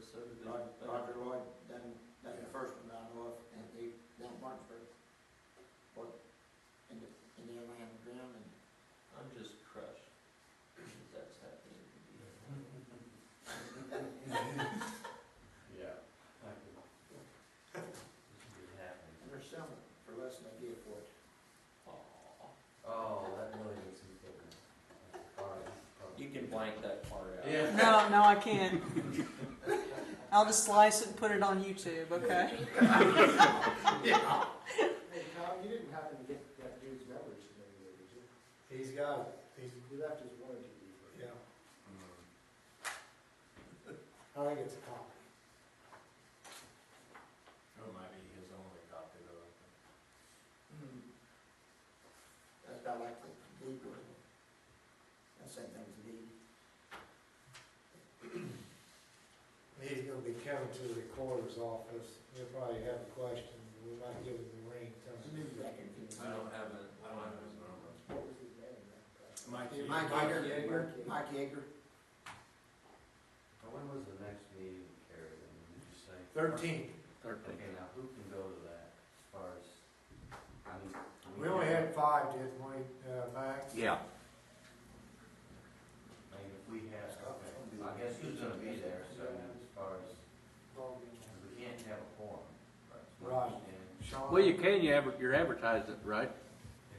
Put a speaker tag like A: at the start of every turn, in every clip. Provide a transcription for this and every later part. A: subdivision.
B: Rod- Roger Lloyd done, done the first one I know of, and they, down Martinsburg, but in the, in the land ground, and
A: I'm just crushed that that's happening.
C: Yeah.
B: there's some for less than they give for it.
A: Aw.
C: Oh, that really makes me think. of- All right.
A: You can blank that part out.
C: Yeah.
D: No, no, I can't. I'll just slice it and put it on YouTube, okay?
E: Hey, Tom, you didn't happen to get that dude's numbers from anywhere, did you?
F: He's got it, he's,
E: You left his warranty before.
F: yeah.
C: Mm,
F: I think it's a copy.
C: That might be his only copy though.
B: Hmm. That's about like the deed was. I said that was a deed.
F: He's gonna be coming to the recorder's office, he'll probably have a question, we might give him the ring, tell
B: I
F: him.
B: knew that could be-
A: I don't have a, I don't have his number.
E: What was his name? man?
C: Mike.
B: Yeah, Mike Yeager, Mike Yeager,
G: When was the next meeting, Carrie, then, did you say?
F: Thirteen,
G: Okay, now who can go to that as far as, I mean. do
F: we only
G: know?
F: had five, didn't we, uh, Max?
G: Yeah. I mean, if we have, okay, I guess who's gonna be there, so I mean, as far as, because we can't have a forum.
F: Right. Sean?
H: Well, you can, you adver- you're advertising, right?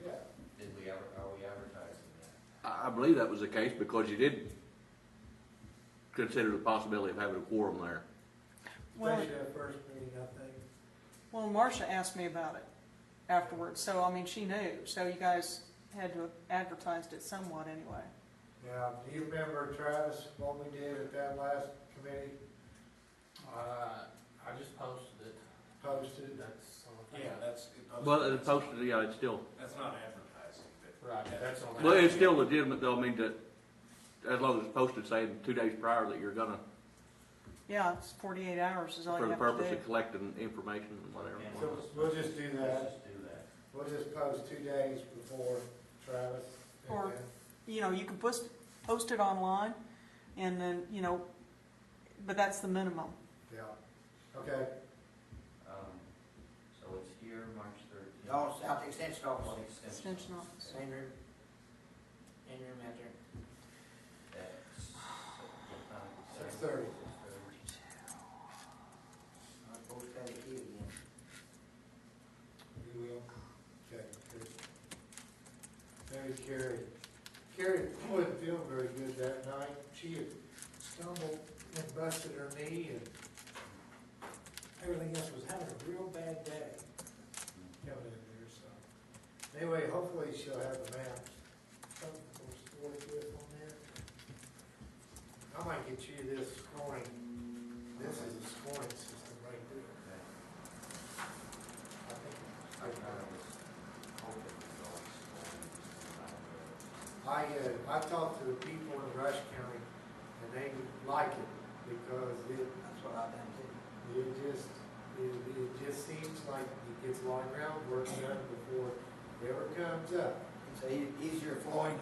E: Yeah.
G: Did we ever, are we advertising that?
H: I, I believe that was the case because you did consider the possibility of having a quorum there.
F: Especially that first meeting, I think.
D: Well, Marcia asked me about it afterwards, so I mean, she knew. So you guys had to have advertised it somewhat anyway.
F: Yeah, do you remember Travis, what we did at that last committee,
C: Uh, I just posted it.
F: posted?
C: That's. Yeah, that's.
H: Well, as opposed to, yeah, it's still,
C: That's not advertising, but. Right, that's on.
H: well, it's still legitimate though, I mean, that, as long as it's posted saying two days prior that you're gonna,
D: Yeah, it's 48 hours is all you
H: for the
D: have to do.
H: purpose of collecting information and whatever.
F: So we'll just do that.
G: Let's just do that.
F: We'll just post two days before Travis. and
D: Or-
F: then-
D: you know, you can post, post it online and then, you know, but that's the minimum.
F: Yeah, okay.
G: Um, so it's here, March thirteenth.
F: Oh,
B: Dallas, out the extension
G: Well,
B: office,
G: extension.
D: Extension office.
B: same room. Same room out there.
G: That's- uh,
F: Six thirty.
G: Six thirty.
B: I both had a key again.
F: You will? Okay, good. Mary Carey. Carrie wasn't feeling very good that night. She had stumbled and busted her knee and everything else was having a real bad day coming in there, so. Anyway, hopefully she'll have the maps. Something for us to work with on that. I might get you this scoring. This is a scoring system right there.
G: Okay.
F: I think
G: I was hoping it was always
F: I,
G: small,
F: uh, I talked to the people in Rush County, and they like it, because it,
B: That's what I've done too.
F: it just, it, it just seems like it gets a lot of groundwork done before it ever comes up.
B: It's a e- easier flowing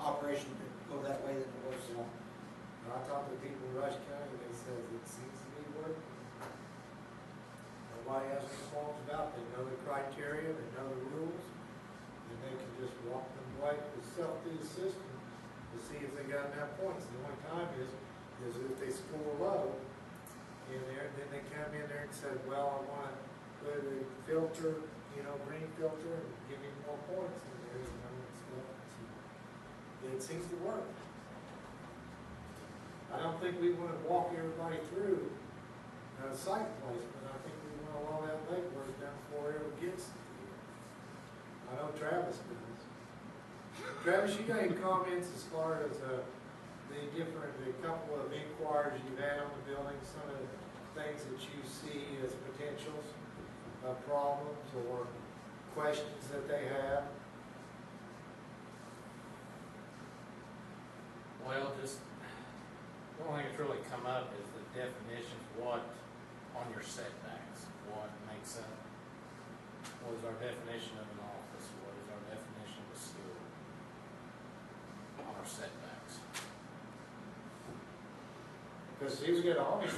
B: operation to go that way than it was, uh,
F: And I talked to people in Rush County, and they says it seems to be working. Nobody has any qualms about it, they know the criteria, they know the rules, and they can just walk them right themselves through the system to see if they got enough points. The only time is, is if they score low in there, then they come in there and say, well, I wanna put a filter, you know, green filter, and give me more points, and there's no one's left. So It seems to work. I don't think we wanna walk everybody through uh, site placement, I think we wanna allow that legwork down before it ever gets to you. I know Travis does. Travis, you got any comments as far as, uh, the different, the couple of inquiries you've had on the building, some of the things that you see as potentials, uh, problems or questions that they have?
C: Well, just, the only thing that's really come up is the definitions, what on your setbacks, what makes up, what is our definition of an office, what is our definition of a school? On our setbacks.
F: Cause he was gonna always